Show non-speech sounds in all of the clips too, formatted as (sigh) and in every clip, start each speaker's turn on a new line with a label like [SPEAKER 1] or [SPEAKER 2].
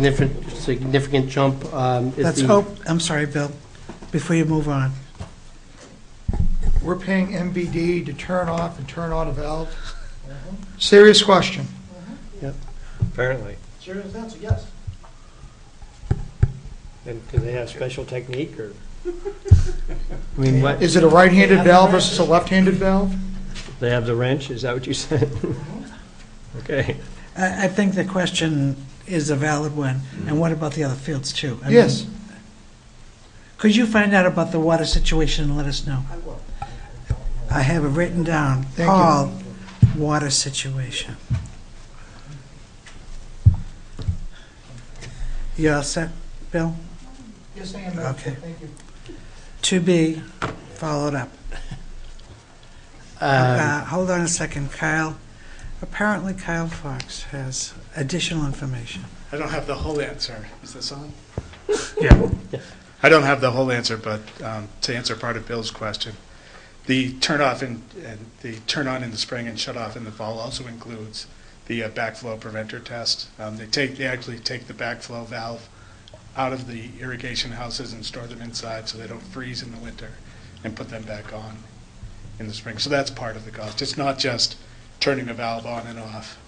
[SPEAKER 1] significant, significant jump. um, is
[SPEAKER 2] Let's
[SPEAKER 1] the-
[SPEAKER 2] hope, I'm sorry, Bill, before you move on.
[SPEAKER 3] We're paying MVD to turn off and turn on a valve? Serious question.
[SPEAKER 4] Apparently.
[SPEAKER 5] Serious answer, yes.
[SPEAKER 4] And do they have special technique or?
[SPEAKER 1] I mean, what,
[SPEAKER 3] Is it a right-handed valve versus a left-handed valve?
[SPEAKER 4] They have the wrench, is that what you said? (laughs) Okay.
[SPEAKER 2] I, I think the question is a valid one, and what about the other fields too? I mean,
[SPEAKER 3] Yes.
[SPEAKER 2] Could you find out about the water situation and let us know?
[SPEAKER 5] I will.
[SPEAKER 2] I have it written down,
[SPEAKER 3] you.
[SPEAKER 2] Paul, water situation. You all set, Bill?
[SPEAKER 3] Yes, I am,
[SPEAKER 2] Madam Chair. Okay.
[SPEAKER 3] thank you.
[SPEAKER 2] To be followed up.
[SPEAKER 1] um,
[SPEAKER 2] Uh, Hold on a second, Kyle. Apparently Kyle Fox has additional information.
[SPEAKER 6] I don't have the whole answer. Is this on?
[SPEAKER 2] Yeah.
[SPEAKER 6] I don't have the whole answer, but um, to answer part of Bill's question, the turn off and, and the turn on in the spring and shut off in the fall also includes the uh, backflow preventer test. Um, they take they actually take the backflow valve out of the irrigation houses and store them inside so they don't freeze in the winter, and put them back on in the spring. So that's part of the cost. It's not just turning a valve on and off.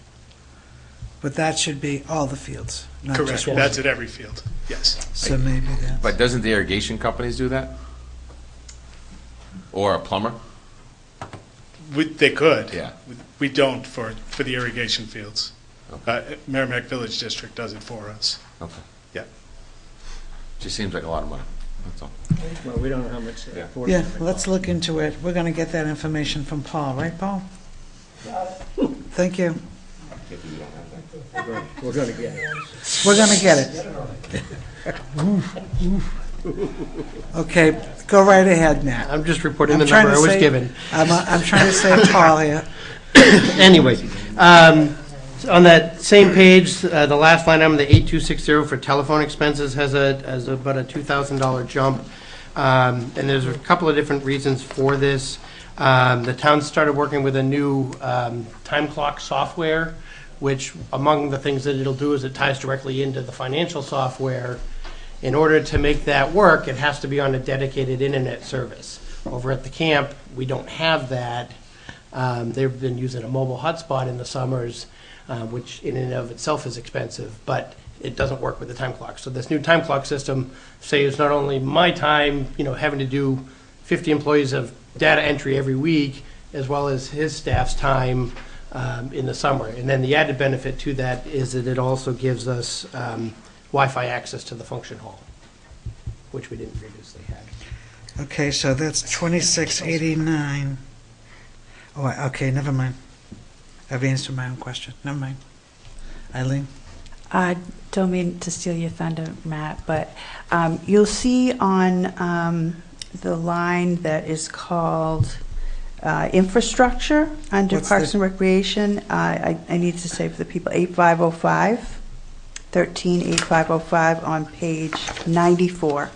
[SPEAKER 2] But that should be all the fields, not
[SPEAKER 6] Correct.
[SPEAKER 2] just one.
[SPEAKER 6] That's at every field. Yes.
[SPEAKER 2] So maybe that's.
[SPEAKER 7] But doesn't the irrigation companies do that? Or a plumber?
[SPEAKER 6] We, they could.
[SPEAKER 7] Yeah.
[SPEAKER 6] We don't for, for the irrigation fields. Uh, Merrimack Village District does it for us.
[SPEAKER 7] Okay.
[SPEAKER 6] Yeah.
[SPEAKER 7] Just seems like a lot of money, that's all.
[SPEAKER 4] Well, we don't know how much.
[SPEAKER 7] Yeah.
[SPEAKER 2] Yeah, let's look into it. We're gonna get that information from Paul, right, Paul? Thank you.
[SPEAKER 4] We're gonna get it.
[SPEAKER 2] We're gonna get it.
[SPEAKER 4] (laughs)
[SPEAKER 2] Okay, go right ahead, Matt.
[SPEAKER 1] I'm just reporting
[SPEAKER 2] I'm
[SPEAKER 1] the
[SPEAKER 2] trying
[SPEAKER 1] number I
[SPEAKER 2] to
[SPEAKER 1] was
[SPEAKER 2] say-
[SPEAKER 1] given.
[SPEAKER 2] I'm, uh, I'm trying to save Paul here.
[SPEAKER 1] Anyway, um, on that same page, uh, the last line item, the 8260 for telephone expenses has a, has about a $2,000 jump. Um, And there's a couple of different reasons for this. Um, The town started working with a new um, time clock software, which among the things that it'll do is it ties directly into the financial software. In order to make that work, it has to be on a dedicated internet service. Over at the camp, we don't have that. Um, they've been using a mobile hotspot in the summers, uh, which in and of itself is expensive, but it doesn't work with the time clock. So this new time clock system saves not only my time, you know, having to do 50 employees of data entry every week, as well as his staff's time um, in the summer. And then the added benefit to that is that it also gives us um, Wi-Fi access to the function hall, which we didn't previously have.
[SPEAKER 2] (laughs) Okay, so that's twenty-six eighty-nine. Oh, I- okay, never mind. I've answered my own question. Never mind. Eileen?
[SPEAKER 8] I don't mean to steal your thunder, Matt, but um, you'll see on um, the line that is called uh, infrastructure under
[SPEAKER 2] What's
[SPEAKER 8] Parks
[SPEAKER 2] the-
[SPEAKER 8] and Recreation, uh, I, I I need to say for the people, 8505, 13 8505 on page 94.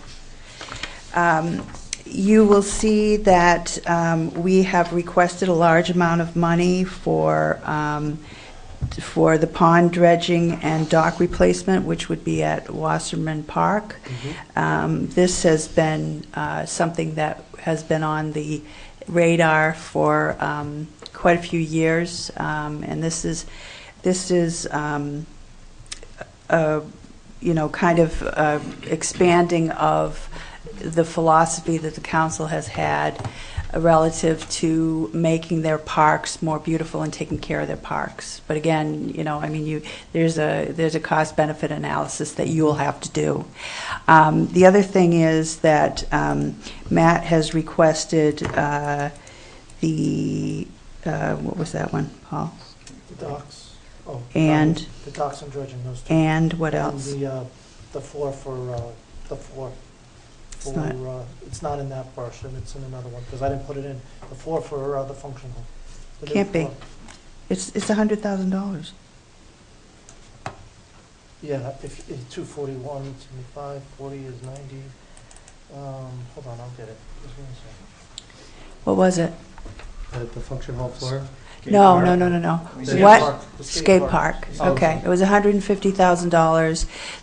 [SPEAKER 8] Um, You will see that um, we have requested a large amount of money for um, for the pond dredging and dock replacement, which would be at Wasserman Park. Um, This has been uh, something that has been on the radar for um, quite a few years, Um, and this is, this is, um, a, uh, you know, kind of uh, expanding of the philosophy that the council has had relative to making their parks more beautiful and taking care of their parks. But again, you know, I mean, you, there's a, there's a cost-benefit analysis that you will have to do. Um, The other thing is that um, Matt has requested uh, the, uh, what was that one, Paul?
[SPEAKER 5] The docks. oh,
[SPEAKER 8] And?
[SPEAKER 5] The docks and dredging, those two.
[SPEAKER 8] And what else?
[SPEAKER 5] And the, uh, the floor for, uh, the floor.
[SPEAKER 8] It's
[SPEAKER 5] For,
[SPEAKER 8] not-
[SPEAKER 5] uh, it's not in that portion, it's in another one, because I didn't put it in. The floor for uh, the function hall. The new
[SPEAKER 8] Can't be.
[SPEAKER 5] floor.
[SPEAKER 8] It's, it's $100,000.
[SPEAKER 5] Yeah, if, if two forty-one, seventy-five, forty is ninety. Um, hold on, I'll get it. Just give me a second.
[SPEAKER 8] What was it?
[SPEAKER 1] at the function hall floor?
[SPEAKER 8] No, no, no, no, no.
[SPEAKER 5] Skate
[SPEAKER 8] What?
[SPEAKER 5] park. Oh, The
[SPEAKER 8] Skate park, okay. It was $150,000.